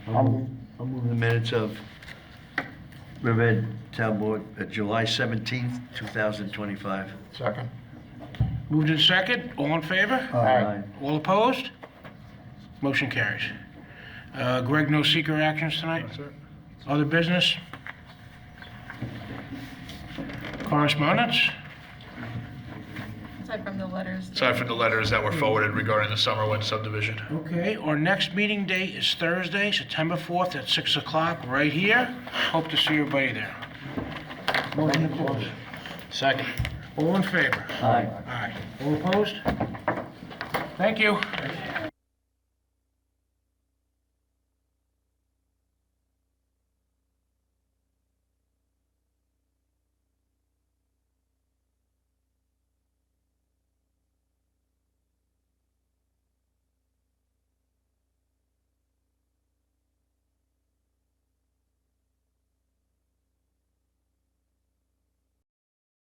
I'll move- I'll move the minutes of Riverhead Town Board, uh, July 17th, 2025. Second. Moved in second, all in favor? Aye. All opposed? Motion carries. Uh, Greg, no secret actions tonight? Other business? Correspondence? Aside from the letters. Aside from the letters that were forwarded regarding the Summerwind subdivision. Okay, our next meeting date is Thursday, September 4th at 6 o'clock, right here. Hope to see everybody there. Motion to close. Second. All in favor? Aye. Aye. All opposed? Thank you.